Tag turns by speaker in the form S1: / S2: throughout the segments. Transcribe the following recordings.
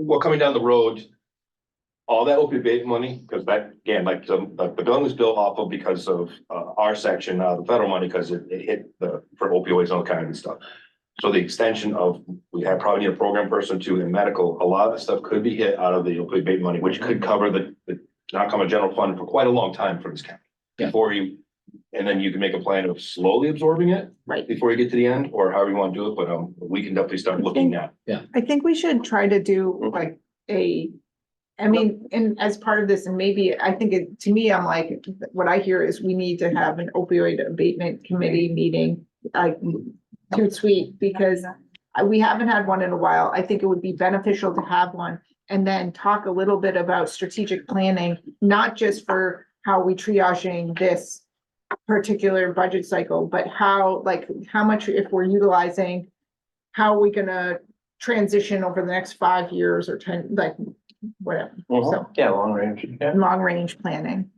S1: well, coming down the road. All that opioid abatement money, because that, again, like, the, like, the gun was built off of because of, uh, our section, uh, the federal money, because it, it hit the, for opioids and all kinds of stuff. So the extension of, we have probably need a program person too in medical, a lot of the stuff could be hit out of the opioid abatement money, which could cover the, the. Not come a general fund for quite a long time for this county.
S2: Yeah.
S1: Before you, and then you can make a plan of slowly absorbing it.
S3: Right.
S1: Before you get to the end, or however you want to do it, but, um, we can definitely start looking at.
S3: I think we should try to do like a, I mean, and as part of this, and maybe, I think it, to me, I'm like, what I hear is we need to have an opioid abatement committee meeting, like, too sweet, because I- we haven't had one in a while. I think it would be beneficial to have one and then talk a little bit about strategic planning, not just for how we triaging this particular budget cycle, but how, like, how much if we're utilizing, how are we gonna transition over the next five years or ten, like, whatever, so,
S4: Uh-huh. Yeah, long range, yeah.
S3: long range planning.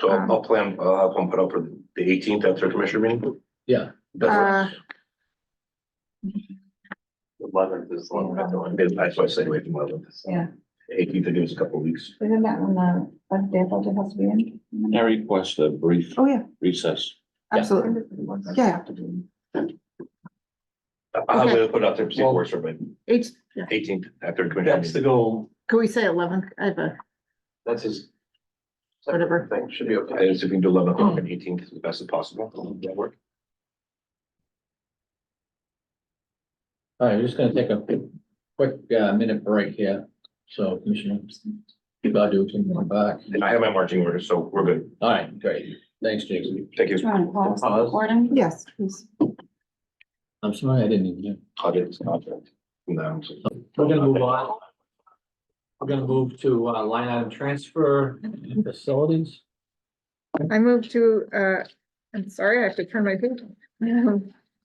S1: So I'll I'll plan, I'll have one put up for the eighteenth after commissioner meeting.
S2: Yeah.
S1: That's
S3: Uh,
S4: Eleventh is long range.
S1: what, that's why I stayed away from eleven.
S5: Yeah.
S1: Eighteenth, I give us a couple of weeks.
S5: Isn't that when the, what day budget has to be in?
S6: I request a brief
S3: oh, yeah,
S6: recess.
S3: absolutely. Yeah.
S1: I- I'll
S3: Okay.
S1: have to put it out there, see if it works, for me.
S3: It's, yeah,
S1: eighteenth after commissioner
S4: That's the
S1: meeting.
S4: goal.
S3: could we say eleven, I have a,
S4: That's his.
S3: Whatever.
S4: Thing should be okay.
S1: And if we can do eleven o'clock and eighteenth as best as possible, that'll work.
S2: All right, we're just gonna take a quick uh minute break here, so Commissioner Godu can come back.
S1: And I have my marching orders, so we're good.
S2: All right, great, thanks, Jason.
S1: Thank you.
S5: Trying to pause the
S4: Pause.
S5: recording.
S3: yes, please.
S2: I'm sorry, I didn't even. hear.
S1: I'll get this contract. No.
S7: We're gonna move on. We're gonna move to uh, line item transfer and facilities.
S3: I move to, uh, I'm sorry, I have to turn my page.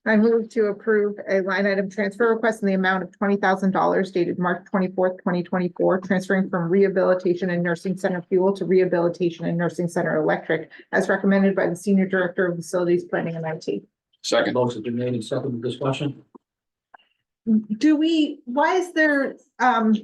S3: I move to approve a line item transfer request in the amount of twenty thousand dollars dated March twenty-fourth, twenty twenty-four, transferring from rehabilitation and nursing center fuel to rehabilitation and nursing center electric as recommended by the Senior Director of Facilities Planning and IT.
S6: Second.
S7: Motion's been made and seconded discussion.
S3: Do we, why is there, um,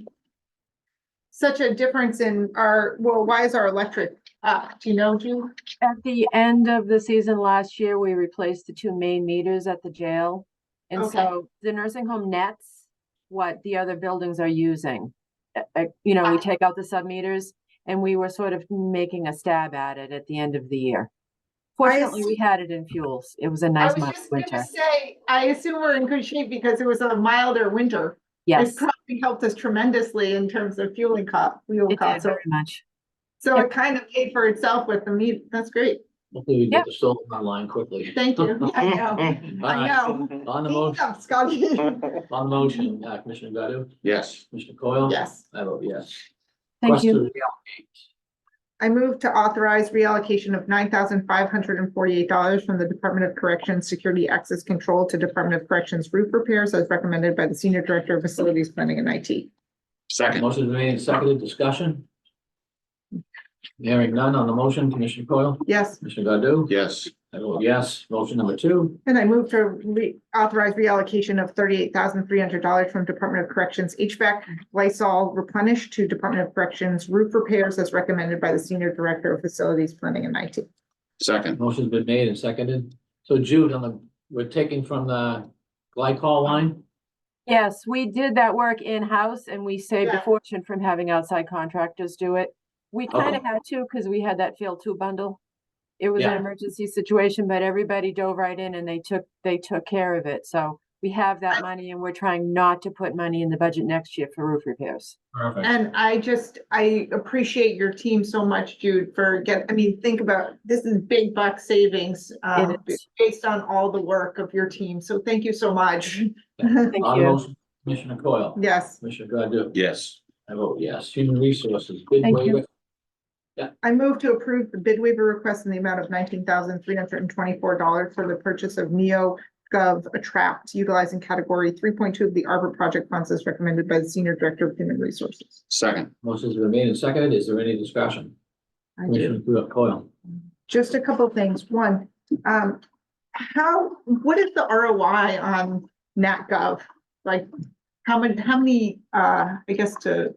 S3: such a difference in our, well, why is our electric up? Do you know, Julie?
S8: At the end of the season last year, we replaced the two main meters at the jail. And
S3: Okay.
S8: so the nursing home nets what the other buildings are using. Uh, uh, You know,
S3: Ah.
S8: we take out the sub meters and we were sort of making a stab at it at the end of the year.
S3: Why is-
S8: Fortunately, we had it in fuels. It was a
S3: I
S8: nice
S3: was
S8: month
S3: just
S8: winter.
S3: gonna say, I assume we're in good shape because it was a milder winter. It
S8: Yes,
S3: probably helped us tremendously in terms of fueling cost, fuel
S8: it did
S3: costs. So-
S8: very much.
S3: So it kind of paid for itself with the meat. That's great.
S7: Hopefully we get the solar online quickly.
S3: Thank you. Yeah, I know.
S1: Hmm.
S7: All
S3: I
S7: right,
S3: know.
S7: on the
S3: Thank
S7: motion,
S3: you, Scotty.
S7: on the motion, uh, Commissioner Godu,
S6: Yes.
S7: Commissioner Coyle?
S3: Yes.
S7: I vote yes.
S8: Thank you.
S7: Request to
S3: I move to authorize reallocation of nine thousand five hundred and forty-eight dollars from the Department of Corrections Security Access Control to Department of Corrections Roof Repairs as recommended by the Senior Director of Facilities Planning and IT.
S7: reallocate.
S6: Second.
S7: Motion's been made and seconded discussion. Hearing none on the motion, Commissioner Coyle,
S3: Yes.
S7: Commissioner Godu?
S6: Yes.
S7: I vote yes. Motion number two,
S3: And I move to re- authorize reallocation of thirty-eight thousand three hundred dollars from Department of Corrections HVAC Lysol replenish to Department of Corrections roof repairs as recommended by the Senior Director of Facilities Planning and IT.
S6: Second.
S7: motion's been made and seconded. So Jude, on the, we're taking from the glycol line?
S8: Yes, we did that work in-house and we saved
S3: Yeah.
S8: a fortune from having outside contractors do it. We kind of had to because we had that field two bundle. It was an
S7: Yeah.
S8: emergency situation, but everybody dove right in and they took, they took care of it. So we have that money and we're trying not to put money in the budget next year for roof repairs.
S7: Perfect.
S3: And I just, I appreciate your team so much, Jude, for get, I mean, think about, this is big buck savings um,
S8: It is.
S3: based on all the work of your team. So thank you so much.
S8: Thank
S7: On the
S8: you. Mm.
S7: motion, Commissioner Coyle,
S3: Yes.
S7: Commissioner Godu,
S6: Yes.
S7: I vote yes. Human Resources, bid
S8: Thank you.
S7: waiver,
S3: I move to approve the bid waiver request in the amount of nineteen thousand three hundred and twenty-four dollars for the purchase of NeoGov Attract utilizing category three point two of the Arbor Project funds as recommended by the Senior Director of Human Resources.
S6: Second.
S7: motion's been made and seconded. Is there any discussion?
S3: I do.
S7: Commissioner Coyle,
S3: Just a couple of things. One, um, how, what is the ROI on NatGov? Like, How many, how many, uh, I guess to